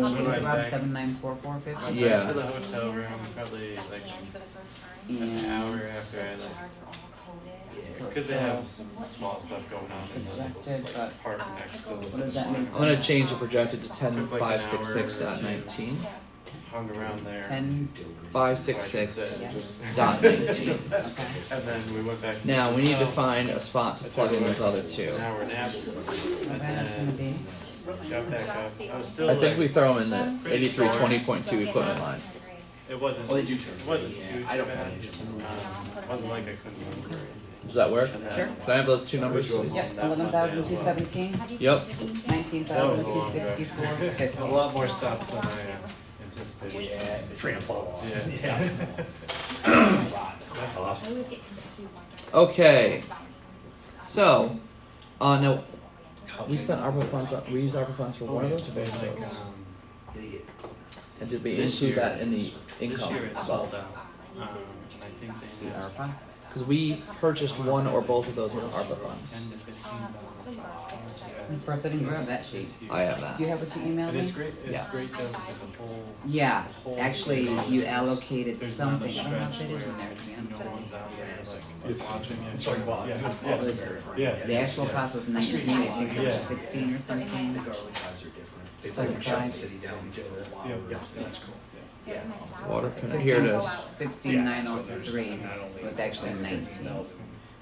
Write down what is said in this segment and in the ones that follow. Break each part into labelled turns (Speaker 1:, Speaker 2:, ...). Speaker 1: Rob
Speaker 2: back.
Speaker 1: seven nine four four
Speaker 3: I
Speaker 1: fifty.
Speaker 3: went
Speaker 4: Yeah.
Speaker 3: To the hotel room, probably like Mm.
Speaker 4: Secondhand for the first time.
Speaker 3: an hour
Speaker 1: And
Speaker 3: after I
Speaker 4: The
Speaker 3: left.
Speaker 4: jars are all coated.
Speaker 1: So
Speaker 3: Because they have
Speaker 4: so
Speaker 3: some small stuff going on in
Speaker 1: Projected,
Speaker 3: the
Speaker 1: but-
Speaker 3: like, park
Speaker 4: Uh,
Speaker 3: next to the.
Speaker 4: pickles.
Speaker 1: What does that mean?
Speaker 4: I'm
Speaker 1: I'm
Speaker 4: gonna
Speaker 1: gonna
Speaker 4: change the projected to ten
Speaker 3: Took, like,
Speaker 4: five
Speaker 3: an
Speaker 4: six six
Speaker 3: hour or
Speaker 4: dot
Speaker 3: two.
Speaker 4: nineteen.
Speaker 3: Hung around there.
Speaker 1: ten.
Speaker 5: Five,
Speaker 3: so I could
Speaker 5: six, six.
Speaker 3: sit and just-
Speaker 5: dot
Speaker 1: Okay.
Speaker 5: nineteen.
Speaker 3: And then we went back. to
Speaker 4: Now,
Speaker 3: the
Speaker 4: we need to
Speaker 3: hotel,
Speaker 4: find a spot to plug in those other two.
Speaker 3: An hour nap.
Speaker 1: So that's gonna
Speaker 3: And then
Speaker 1: be
Speaker 3: got back up. I was still
Speaker 4: I
Speaker 3: like.
Speaker 4: think we throw them in the
Speaker 3: Pretty
Speaker 4: eighty-three
Speaker 3: sure.
Speaker 4: twenty point two equipment line.
Speaker 3: It wasn't.
Speaker 5: Oh, they do turn.
Speaker 3: It wasn't
Speaker 5: Yeah,
Speaker 3: too. too
Speaker 5: I don't
Speaker 3: bad.
Speaker 5: manage them.
Speaker 3: Um, wasn't like I couldn't remember. anything.
Speaker 4: Does that work?
Speaker 3: And then-
Speaker 1: Sure.
Speaker 4: Can I have those two numbers? please?
Speaker 1: Yep, eleven thousand two seventeen,
Speaker 4: Yep.
Speaker 1: nineteen
Speaker 3: That was
Speaker 1: thousand
Speaker 3: a long
Speaker 1: two
Speaker 3: drive.
Speaker 1: sixty-four fifty.
Speaker 3: A lot more stops than I uh, anticipated.
Speaker 5: Yeah. Trample.
Speaker 3: Yeah.
Speaker 5: That's awesome.
Speaker 4: Okay. So, uh, no, we spent ARPA funds, on- we used ARPA funds for one of those or both of
Speaker 3: Like,
Speaker 4: those?
Speaker 3: um,
Speaker 4: And did we
Speaker 3: This
Speaker 4: include
Speaker 3: year-
Speaker 4: that in the
Speaker 3: This
Speaker 4: income
Speaker 3: year it's
Speaker 4: as well?
Speaker 3: sold out. Um, I think they
Speaker 1: The
Speaker 3: did
Speaker 1: ARPA,
Speaker 4: Cause we purchased one or both of those with ARPA funds.
Speaker 3: ten to fifteen thousand.
Speaker 1: of course, I didn't grab that sheet.
Speaker 4: I have that.
Speaker 1: Do you have what you emailed
Speaker 3: And it's
Speaker 1: me?
Speaker 3: great,
Speaker 4: Yeah.
Speaker 3: it's great though, because the whole.
Speaker 1: Yeah,
Speaker 3: the whole
Speaker 1: actually,
Speaker 3: thing
Speaker 1: you
Speaker 3: is-
Speaker 1: allocated
Speaker 3: there's not a
Speaker 1: something, I don't know if
Speaker 3: stretch
Speaker 1: it is in
Speaker 3: where
Speaker 1: there, to be honest
Speaker 3: No
Speaker 1: with
Speaker 3: one's out there, like,
Speaker 5: Yes.
Speaker 3: watching it.
Speaker 5: Sorry, well,
Speaker 3: Yeah.
Speaker 5: yeah.
Speaker 3: Yeah.
Speaker 1: It was-
Speaker 3: Yeah.
Speaker 1: you. The actual cost was nineteen, I think it
Speaker 3: Yeah.
Speaker 1: was sixteen or something.
Speaker 5: The garlic guys are different. They
Speaker 1: Set
Speaker 5: put the shop
Speaker 1: aside.
Speaker 5: city down different.
Speaker 3: Yeah.
Speaker 5: Yeah, that's cool. Yeah.
Speaker 4: Water Here it is.
Speaker 1: Sixteen nine oh three was actually nineteen.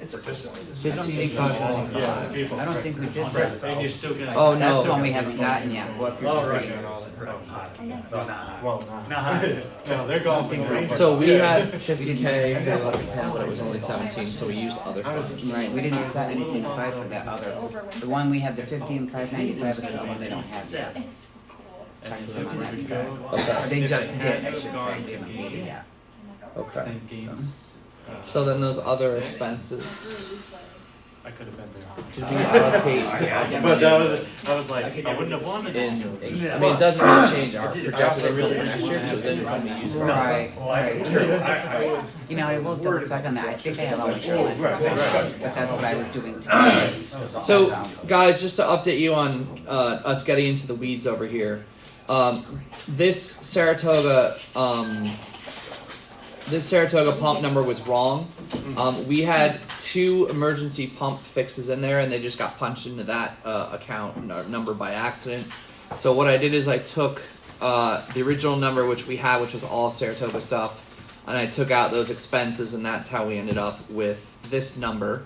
Speaker 5: It's a
Speaker 1: Fifteen
Speaker 5: percentage.
Speaker 1: eight
Speaker 3: Yeah, it's
Speaker 1: five.
Speaker 3: people.
Speaker 1: I don't think we did
Speaker 3: Right,
Speaker 1: that.
Speaker 3: and you're still gonna.
Speaker 4: Oh, no.
Speaker 1: That's the one we haven't gotten yet. What you're
Speaker 3: Oh, right.
Speaker 1: saying.
Speaker 5: No, not.
Speaker 3: Well, not. No, they're
Speaker 1: I
Speaker 3: gone.
Speaker 1: think
Speaker 3: for the
Speaker 1: we're-
Speaker 3: most
Speaker 4: So
Speaker 3: part.
Speaker 4: we
Speaker 3: Yeah.
Speaker 4: had fifty K for ARPA funds, but it was only seventeen, so we used other
Speaker 3: I was-
Speaker 4: funds.
Speaker 1: Right, we didn't set anything aside for that other. The one we have, the fifteen five ninety-five is the one they don't have yet.
Speaker 4: It's cool.
Speaker 6: Oh
Speaker 3: And
Speaker 1: Check
Speaker 3: if
Speaker 1: them on
Speaker 3: we
Speaker 1: that.
Speaker 3: would go-
Speaker 4: Okay.
Speaker 1: They
Speaker 3: If
Speaker 1: just
Speaker 3: it
Speaker 1: did, I
Speaker 3: had
Speaker 1: should
Speaker 3: gone
Speaker 1: say,
Speaker 3: to
Speaker 1: they don't need
Speaker 3: games,
Speaker 1: it yet.
Speaker 3: I
Speaker 4: Okay.
Speaker 3: think games, uh,
Speaker 4: So then those other expenses,
Speaker 3: I could have been there.
Speaker 4: did we allocate the
Speaker 3: But that
Speaker 4: money
Speaker 3: was, I was like,
Speaker 5: I could
Speaker 3: I wouldn't have
Speaker 5: never
Speaker 3: wanted.
Speaker 4: in,
Speaker 3: it.
Speaker 4: I mean, it doesn't really change our
Speaker 5: I did- I
Speaker 4: projected
Speaker 3: also
Speaker 4: income
Speaker 3: really
Speaker 4: for next year,
Speaker 3: didn't
Speaker 4: because
Speaker 3: want
Speaker 4: it
Speaker 3: to
Speaker 4: isn't
Speaker 3: have
Speaker 4: gonna be used for. ARPA.
Speaker 1: Right, right.
Speaker 5: I,
Speaker 1: You know, I will double check on that. I think I have all the email
Speaker 3: Right, right,
Speaker 1: information, but that's what I was doing today.
Speaker 4: So, guys, just to update you on uh, us getting into the weeds over here, um, this Saratoga, um, this Saratoga pump number was wrong. Um, we had two emergency pump fixes in there, and they just got punched into that uh, account n- number by accident. So what I did is I took uh, the original number which we had, which was all of Saratoga stuff, and I took out those expenses, and that's how we ended up with this number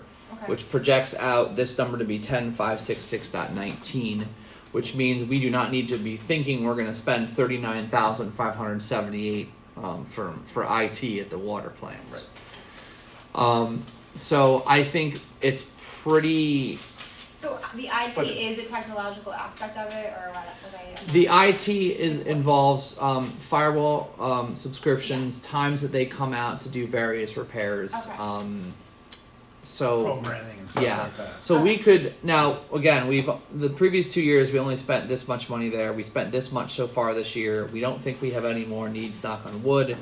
Speaker 4: which projects out this number to be 10566.19, which means we do not need to be thinking we're going to spend 39,578 um, for for IT at the water plants. Um, so I think it's pretty.
Speaker 6: So uh, the IT is the technological aspect of it, or what? what I,
Speaker 4: The IT is involves um, firewall um, subscriptions, times that they come out to do various repairs.
Speaker 6: Okay.
Speaker 4: Um, so
Speaker 7: programming and stuff
Speaker 4: Yeah.
Speaker 7: like that.
Speaker 4: So we could now again we've the previous two years we only spent this much money there. We spent this much so far this year. We don't think we have any more needs. Knock on wood.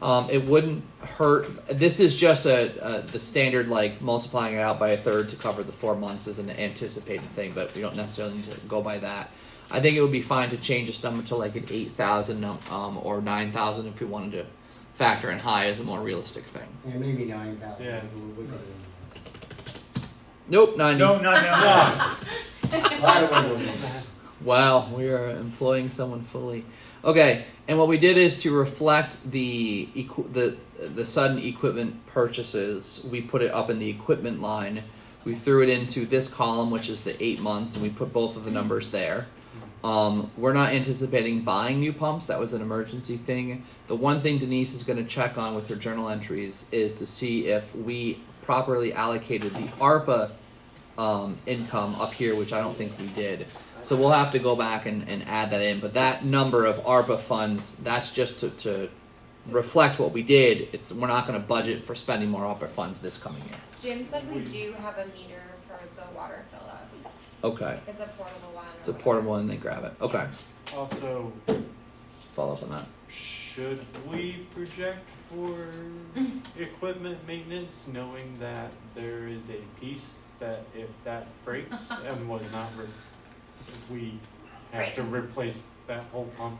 Speaker 4: Um, it wouldn't hurt. This is just a, a the standard like multiplying it out by a third to cover the four months is an anticipated thing, but we don't necessarily need to go by that. I think it would be fine to change this number to like an eight thousand um, or nine thousand if we wanted to factor in high as a more realistic thing.
Speaker 8: Yeah, maybe nine thousand.
Speaker 3: Yeah.
Speaker 4: Nope, ninety.
Speaker 7: No, no, no.
Speaker 8: A lot of wiggle room.
Speaker 4: Wow, we are employing someone fully. Okay, and what we did is to reflect the equi- the the sudden equipment purchases. We put it up in the equipment line. We threw it into this column, which is the eight months, and we put both of the numbers there. Um, we're not anticipating buying new pumps. That was an emergency thing. The one thing Denise is going to check on with her journal entries is to see if we properly allocated the ARPA um, income up here, which I don't think we did. So we'll have to go back and, and add that in. But that number of ARPA funds, that's just to, to reflect what we did. It's we're not going to budget for spending more ARPA funds this coming year.
Speaker 6: Jim said we do have a meter for the water fill up.
Speaker 4: Okay,
Speaker 6: It's a portable one. or
Speaker 4: it's a
Speaker 6: whatever.
Speaker 4: portable and they grab it. Okay,
Speaker 3: Also,
Speaker 4: follow up on that.
Speaker 3: should we project for equipment maintenance, knowing that there is a piece that if that breaks and was not, re- we have to replace that whole pump